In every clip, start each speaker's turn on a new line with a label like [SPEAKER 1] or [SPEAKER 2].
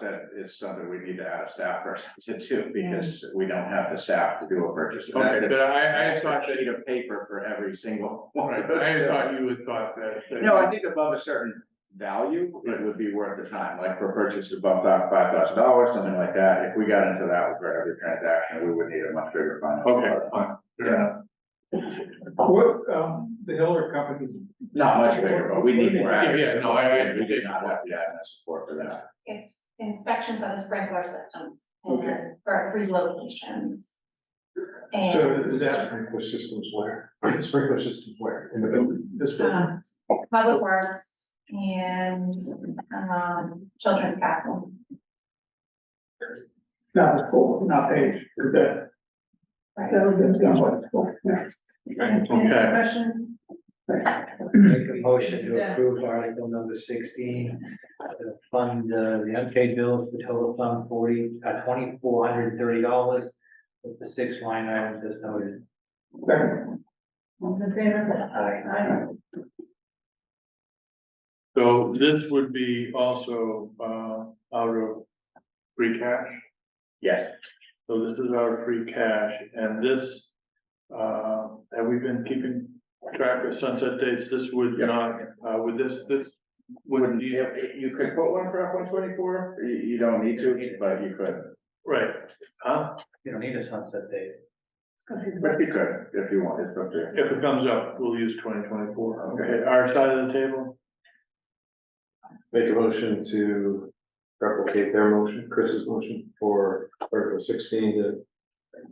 [SPEAKER 1] That is something we need to add a staff person to do because we don't have the staff to do a purchase.
[SPEAKER 2] Okay, but I, I had
[SPEAKER 1] That's
[SPEAKER 2] thought
[SPEAKER 1] a
[SPEAKER 2] that,
[SPEAKER 1] sheet of paper for every single one
[SPEAKER 2] right,
[SPEAKER 1] of
[SPEAKER 2] I had
[SPEAKER 1] those.
[SPEAKER 2] thought you would thought that. that-
[SPEAKER 1] No, I think above a certain value, it would be worth the time, like for purchase above five thousand dollars, something like that. If we got into that for every transaction, we would need a much bigger fund.
[SPEAKER 2] Okay, fine.
[SPEAKER 1] Yeah,
[SPEAKER 3] What, um, the Hiller company,
[SPEAKER 1] not much bigger, but we need more.
[SPEAKER 2] Yeah, yeah,
[SPEAKER 1] admin
[SPEAKER 2] no, I- I-
[SPEAKER 1] support. We did not have the admin support for that.
[SPEAKER 4] It's inspection for the sprinkler systems and
[SPEAKER 3] Okay.
[SPEAKER 4] then for relocations.
[SPEAKER 3] so
[SPEAKER 4] And,
[SPEAKER 3] is that sprinkler systems where, sprinkler systems where, in the building, this building?
[SPEAKER 4] um, public works and, um, children's castle.
[SPEAKER 3] Not the school, not age, the,
[SPEAKER 4] Right.
[SPEAKER 3] that's not what it's for, yeah.
[SPEAKER 4] Any
[SPEAKER 2] Okay.
[SPEAKER 4] other questions?
[SPEAKER 5] Make a motion to approve article number sixteen, to fund uh, the unpaid bills, the total sum forty, uh, twenty-four hundred and thirty dollars with the six line items as noted.
[SPEAKER 4] All in favor?
[SPEAKER 5] Aye.
[SPEAKER 4] Aye.
[SPEAKER 2] So this would be also, uh, out of free cash,
[SPEAKER 1] Yes,
[SPEAKER 2] so this is our free cash, and this. Uh, have we been keeping track of sunset dates, this would
[SPEAKER 1] Yeah.
[SPEAKER 2] not, uh, would this, this,
[SPEAKER 1] wouldn't,
[SPEAKER 2] would
[SPEAKER 1] you,
[SPEAKER 2] you,
[SPEAKER 1] you could put one for F one twenty-four, you, you don't need to, but you could.
[SPEAKER 2] right, huh?
[SPEAKER 5] You don't need a sunset date.
[SPEAKER 1] But you could, if you want, it's up to you.
[SPEAKER 2] If it comes up, we'll use twenty twenty-four,
[SPEAKER 1] Okay.
[SPEAKER 2] okay, our side of the table,
[SPEAKER 6] Make a motion to replicate their motion, Chris's motion for Article sixteen to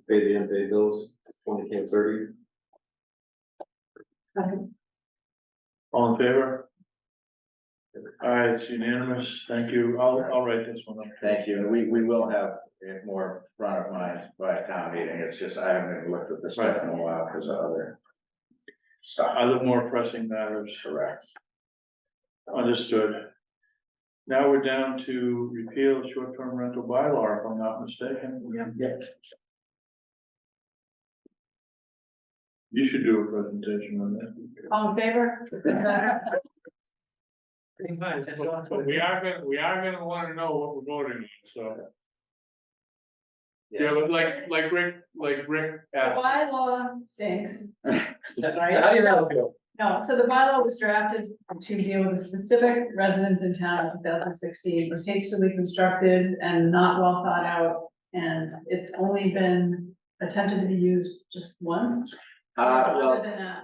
[SPEAKER 6] pay the unpaid bills, twenty and thirty.
[SPEAKER 2] all in favor? All right, it's unanimous, thank you, I'll, I'll write this one up.
[SPEAKER 1] Thank you, and we, we will have it more front of mind by town meeting, it's just, I haven't even looked at this stuff in a while, because of other. Stuff,
[SPEAKER 2] Other more pressing matters,
[SPEAKER 1] correct,
[SPEAKER 2] understood. Now we're down to repeal the short-term rental bylaw, if I'm not mistaken.
[SPEAKER 1] Yep.
[SPEAKER 2] You should do a presentation on that.
[SPEAKER 4] All in favor?
[SPEAKER 5] Pretty much, that's
[SPEAKER 2] But we are gonna, we are gonna wanna know what we're voting on, so. Yeah, but like, like Rick, like Rick asked,
[SPEAKER 4] Bylaw stinks.
[SPEAKER 5] How do you know? Bill?
[SPEAKER 4] No, so the bylaw was drafted to deal with specific residents in town in two thousand sixteen, It was hastily constructed and not well thought out. And it's only been attempted to be used just once.
[SPEAKER 1] uh,
[SPEAKER 4] Other
[SPEAKER 1] well,
[SPEAKER 4] than that,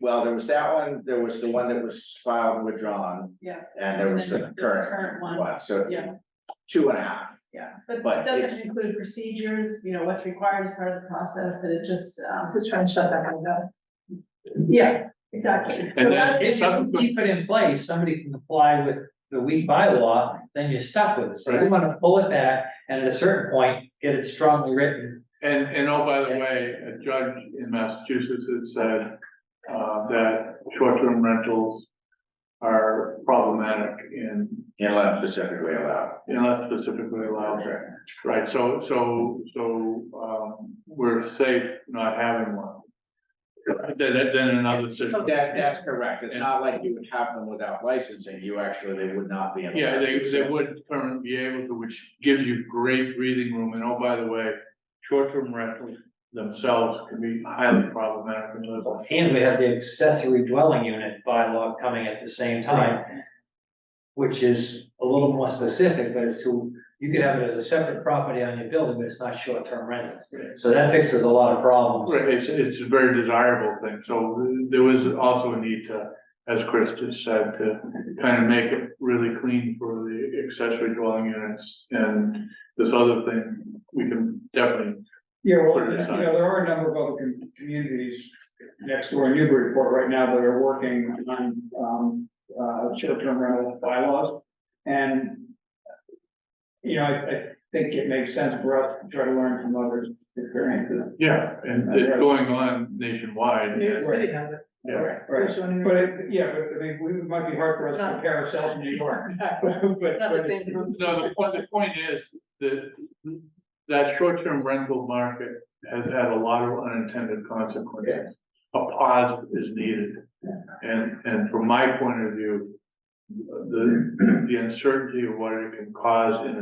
[SPEAKER 1] well, there was that one, there was the one that was filed and withdrawn,
[SPEAKER 4] Yeah,
[SPEAKER 1] and there was the
[SPEAKER 4] This
[SPEAKER 1] current
[SPEAKER 4] current one.
[SPEAKER 1] one, so.
[SPEAKER 4] Yeah.
[SPEAKER 1] Two and a half,
[SPEAKER 4] yeah, but
[SPEAKER 1] But
[SPEAKER 4] it
[SPEAKER 1] it's-
[SPEAKER 4] doesn't include procedures, you know, what's required as part of the process, and it just, um. Just trying to shut that one down. Yeah, exactly. So
[SPEAKER 2] And
[SPEAKER 4] that's
[SPEAKER 2] then-
[SPEAKER 4] the
[SPEAKER 5] If you keep it in place, somebody can comply with the weak bylaw, then you're stuck with it. So you wanna pull it back and at a certain point, get it strongly written.
[SPEAKER 2] and, and oh, by the way, a judge in Massachusetts had said. Uh, that short-term rentals are problematic in,
[SPEAKER 1] unless specifically allowed.
[SPEAKER 2] unless specifically allowed. Right, so, so, so, um, we're safe not having one. Then, then another
[SPEAKER 4] So
[SPEAKER 2] system.
[SPEAKER 1] That, that's correct, it's not like you would have them without licensing, you actually, they would not be. allowed.
[SPEAKER 2] Yeah, they, they would currently be able to, which gives you great breathing room, and oh, by the way, short-term rentals themselves can be highly problematic in those.
[SPEAKER 5] And we have the accessory dwelling unit bylaw coming at the same time. Which is a little more specific, but it's to, you could have it as a separate property on your building, but it's not short-term rentals. So that fixes a lot of problems.
[SPEAKER 2] Right, it's, it's a very desirable thing, so there was also a need to, as Chris just said, to kind of make it really clean for the accessory dwelling units. And this other thing, we can definitely
[SPEAKER 3] Yeah, well,
[SPEAKER 2] Put it
[SPEAKER 3] you know,
[SPEAKER 2] aside.
[SPEAKER 3] there are a number of other com- communities next door in Newburyport right now that are working on, um, uh, short-term rental bylaws. And, you know, I, I think it makes sense for us to try to learn from others' experiences.
[SPEAKER 2] Yeah, and it's going on nationwide.
[SPEAKER 3] City
[SPEAKER 7] has it.
[SPEAKER 2] Yeah,
[SPEAKER 3] Right, but it, yeah, but I mean, we, it might be hard for us to compare ourselves in New York. But, but
[SPEAKER 7] Not the
[SPEAKER 3] it's-
[SPEAKER 7] same.
[SPEAKER 2] no, the point, the point is that that short-term rental market has had a lot of unintended consequences. A pause is needed. And, and from my point of view, the, the uncertainty of what it can cause in